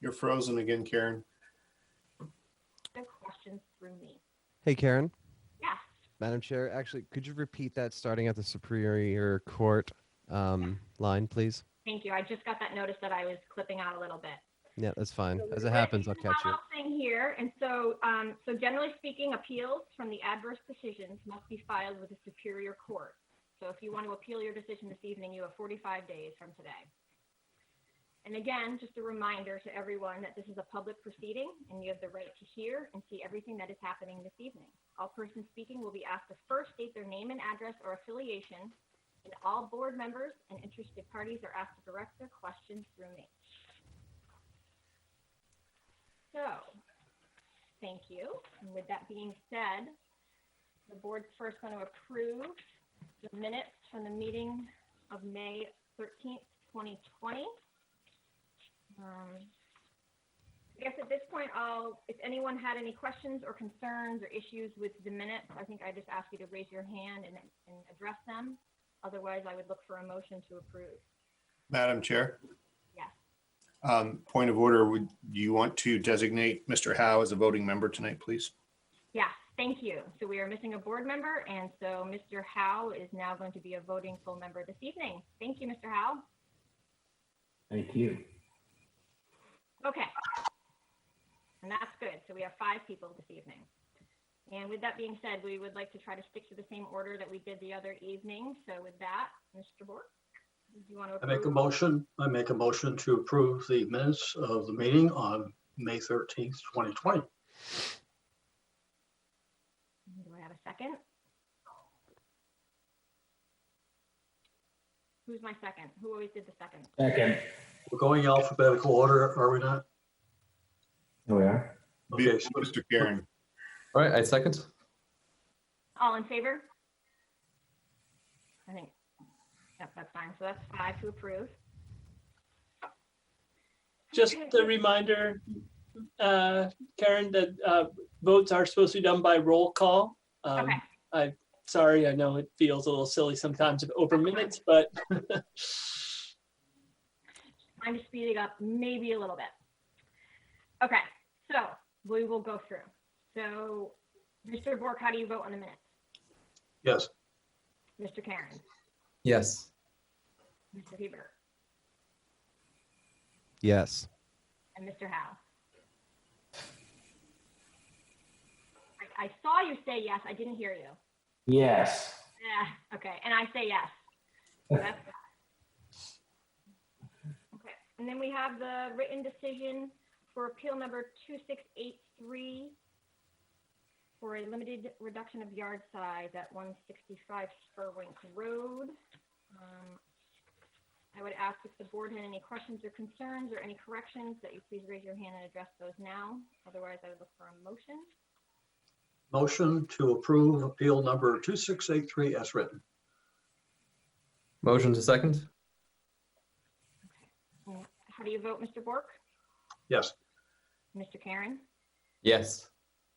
You're frozen again, Karen. The questions through me. Hey, Karen. Yes. Madam Chair, actually, could you repeat that starting at the Superior Court um, line, please? Thank you. I just got that notice that I was clipping out a little bit. Yeah, that's fine. As it happens, I'll catch you. One last Thing here, and so, um, so generally speaking, appeals from the adverse decisions must be filed with the superior court. So if you want to appeal your decision this evening, you have forty-five days from today. And again, just a reminder to everyone that this is a public proceeding and you have the right to hear and see everything that is happening this evening. All persons speaking will be asked to first state their name and address or affiliation, and all board members and interested parties are asked to direct their questions through me. So, thank you. And with that being said, the board's first going to approve the minutes from the meeting of May 13th, 2020. Um, I guess at this point, I'll, if anyone had any questions or concerns or issues with the minutes, I think I just ask you to raise your hand and, and address them. Otherwise, I would look for a motion to approve. Madam Chair? Yes. Um, Point of order, would you want to designate Mr. Howe as a voting member tonight, please? Yeah, thank you. So we are missing a board member, and so Mr. Howe is now going to be a voting full member this evening. Thank you, Mr. Howe. Thank you. Okay. And that's good. So we have five people this evening. And with that being said, we would like to try to stick to the same order that we did the other evening. So with that, Mr. Bork, do you want to? I make a approve? motion, I make a motion to approve the minutes of the meeting on May thirteenth, twenty twenty. Do I have a second? Who's my second? Who always did the second? Second. We're going alphabetical order, are we not? Here we are. Okay, so Mr. Karen, All right, I second. All in favor? I think, yep, that's fine. So that's five to approve. Just a reminder, uh, Karen, that uh, votes are supposed to be done by roll call. Um, Okay. I, sorry, I know it feels a little silly sometimes over minutes, but I'm just speeding up maybe a little bit. Okay, so we will go through. So, Mr. Bork, how do you vote on the minutes? Yes, Mr. Karen, Yes. Mr. Hebert, Yes. and Mr. Howe? I, I saw you say yes, I didn't hear you. Yes. Yeah, okay, and I say yes. So that's that. Okay, and then we have the written decision for appeal number 2683 for a limited reduction of yard size at 165 Spurwink Road. Um, I would ask if the board had any questions or concerns or any corrections, that you please raise your hand and address those now. Otherwise, I would look for a motion. motion to approve appeal number two six eight three as written. Motion to second? And How do you vote, Mr. Bork? Yes, Mr. Karen? Yes.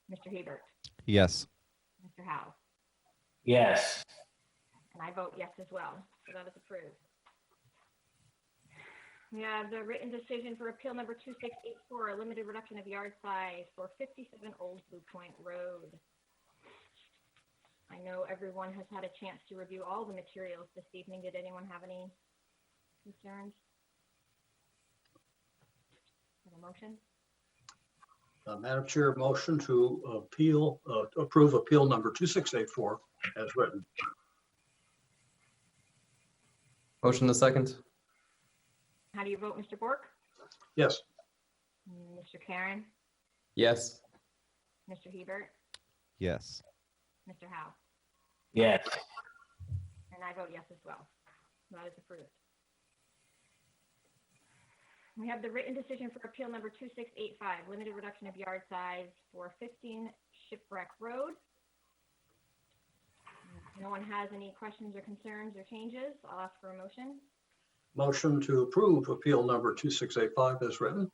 Mr. Hebert? Yes. Mr. Howe? Yes. And I vote yes as well, so that is approved. We have the written decision for appeal number 2684, a limited reduction of yard size for 57 Old Blue Point Road. I know everyone has had a chance to review all the materials this evening. Did anyone have any concerns? Have a motion? Uh, Madam Chair, motion to appeal, uh, approve appeal number two six eight four as written. Motion to second? How do you vote, Mr. Bork? Yes, Mr. Karen? Yes. Mr. Hebert? Yes. Mr. Howe? Yes. And I vote yes as well. That is approved. We have the written decision for appeal number 2685, limited reduction of yard size for 15 Shipwreck Road. If No one has any questions or concerns or changes. I'll ask for a motion. motion to approve appeal number two six eight five as written.